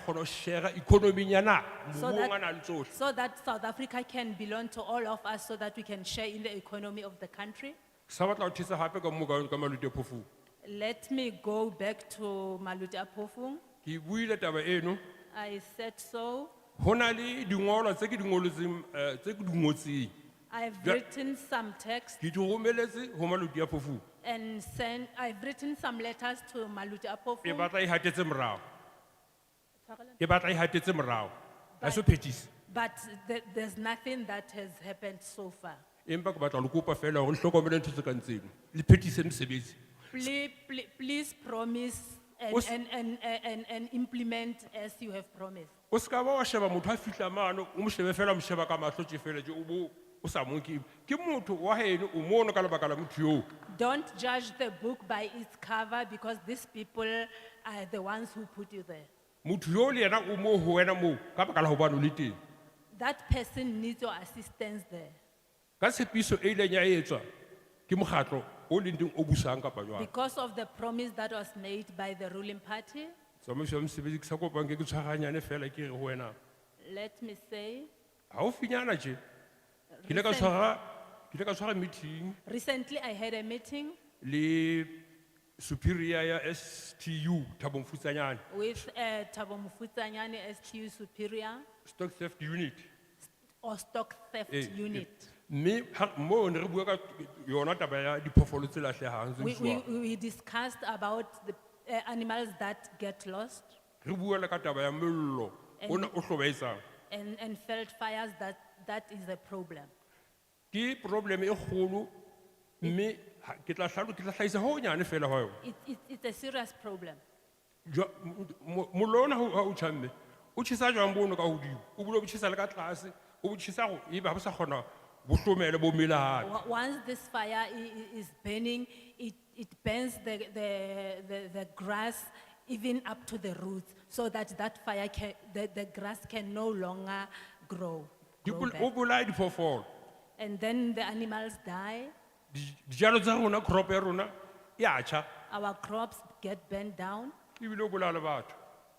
kono share economy nyana, So mongwe that- a na le tsohle. So that South Africa can belong to all of us so that we can share in the economy of the country. Sa batla ho thusa hape ka moo ka- ka Maluti Phofung. Let me go back to Maluti Apofung. Ke buile taba eno, I said so. ho na le dingolwa tse ke di ngolotseng, eh, tse ke di ngotseng. I've Yeah. written some text Ke di romeletse ho Maluti Phofung. and sent, I've written some letters to Maluti E Apofung. batla e hatetse morao, e batla e hatetse morao. Ha se ho phethisa. But the- there's nothing that has happened so far. Empa ke batla ho le kopa feela hore le hlokomele ntho tse kang tseno. Le phethise mosebetsi. Please, please promise and, What's- and, and, and, and implement as you have promised. O ska ba wa sheba motho a fihla mano, o mo shebe feela o mo sheba ka mahlo tje feela tje, o bo- o sa mo nke. Ke motho wa heno, o mono ka lebaka la motho eo. Don't judge the book by its cover because these people are the ones who put you there. motho yo le yena o moo ho wena moo ka baka la hobane o le teng That person needs your assistance there ka tshepiso e ileng ya etswa ke mokgatlo o leng teng o busang kapa jwang because of the promise that was made by the ruling party. tsamaiso ya mosebetsi ke sa kopang ke ke tshwaraganyane fela ke re ho wena Let me say, gaufinyana je ke ile ka recent- tshwara ke ile ka tshwara meeting recently I had a meeting le superior ya stu thabong futsanyane with uh, Thabo Mufutanyane STU Superior stock theft unit or Stock Theft Eh, eh. Unit. mme ha- moo ne re bua ka yona taba ya diphoofolo tse latlhegang We, tse we, jwang we discussed about the uh, animals that get lost re bua le ka taba ya mollo ona o hlobaetsang and, and felt fires that, that is a problem. ke problem e kgolo mme ha- ke tla hlalo ke tla hlahisa ho nyane fela ho yona It, it, it's a serious problem. Jwa- mo- mo- mollo ona ha o tjhamme o tjhesa jwang bono ka hodimo o bule o tjhesa le ka tlase o bo tjhesa go ebe ha bo sa kgona bo hlomele bo mele hape Wa- Once this fire i- i- is burning, it, it burns the, the, the, the grass even up to the roots so that that fire can, the, the grass can no longer grow. Di grow bol- back. o bolaya diphoofolo And then the animals die, Di- dijalo tsa rona crop ya rona e a tjha our crops get burnt down. ebile o bolaya le batho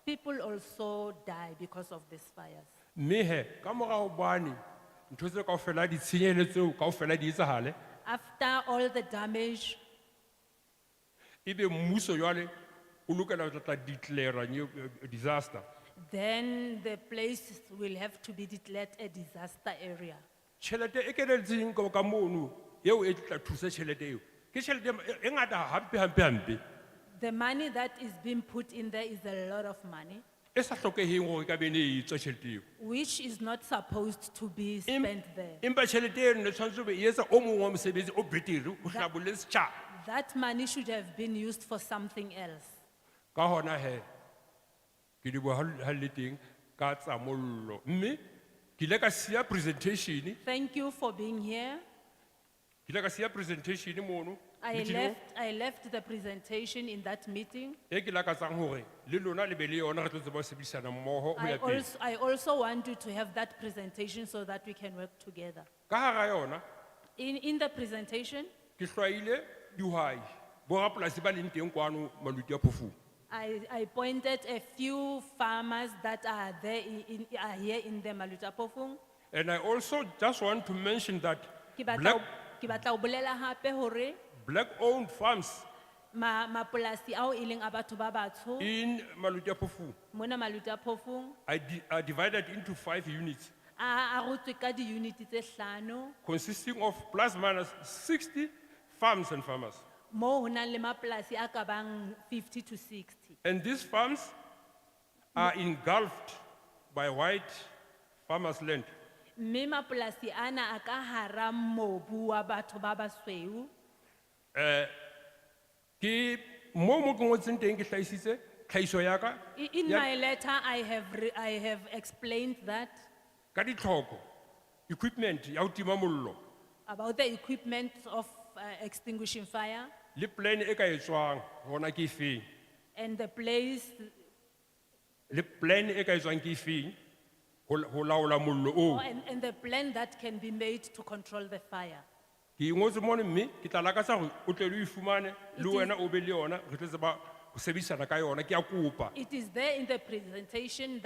People also die because of these fires. mme he ka mora hobane ntho tse kaofela ditshenyehelo tseo kaofela di etsahale After all the damage, ebe mmuso jwale o lokela ho tla- tla declara new eh, disaster then the place will have to be declared a disaster area. tšhelete e keleditseng ka ka mono yeo e tla thusa tšhelete eo ke tšhelete e- e ngata hampe hampe hampe The money that is being put in there is a lot of money, e sa tlhokegeng gore e ka bene e tswa tšhelete eo which is not supposed to be Em- spent there. empa tšhelete eno ne tshwanetse o be e etsa o mongwe wa mosebetsi o betere o hlabolle setšhaba That money should have been used for something else. ka gona he ke di boa ga le teng ka tsa mollo mme ke ile ka sia presentation Thank you for being here. ke ile ka sia presentation mono I meeting-ong, left, I left the presentation in that meeting. e ke lakatsang gore le lona le be le yona re tlo tseba ho sebedisana mmogo o I ya pele also, I also want you to have that presentation so that we can work together. ka gara yona In, in the presentation, ke hlwaile dihwai borapolasi ba leng teng kwano maluti a phofung I, I pointed a few farmers that are there in, in, are here in the Malutapofung. and i also just want to mention that Ki batla, black, ki batla obolela hape hore, black owned farms ma, mapolasi ao e leng a batho ba batsho, in maluti a phofung mona Malutapofung, are, di- are divided into five units a, a rotswe ka di-unit tse hlano, consisting of plus minus 60 farms and farmers moo ho nang le mapolasi a ka bang fifty to sixty. and these farms are engulfed by white farmers land Mme mapolasi ana a ka hara mobu wa batho ba basweu. ke mo mo ke ngotseng teng ke hlahisitse tlhahiso ya ka I- In ya- my letter, I have, re- I have explained that ka ditlhoko equipment ya ho tima mollo about the equipment of uh, extinguishing fire le plan e ka etswang hona ke efeng and the place le plan e ka etswang ke efeng ho la- ho laola mollo oo and, and the plan that can be made to control the fire. ke ingotse mone mme ke tla lakatsa gore o tle le o ifumane le It is- wena o be le yona re tlo tseba ho sebedisana ka yona ke a kopa It is there in the presentation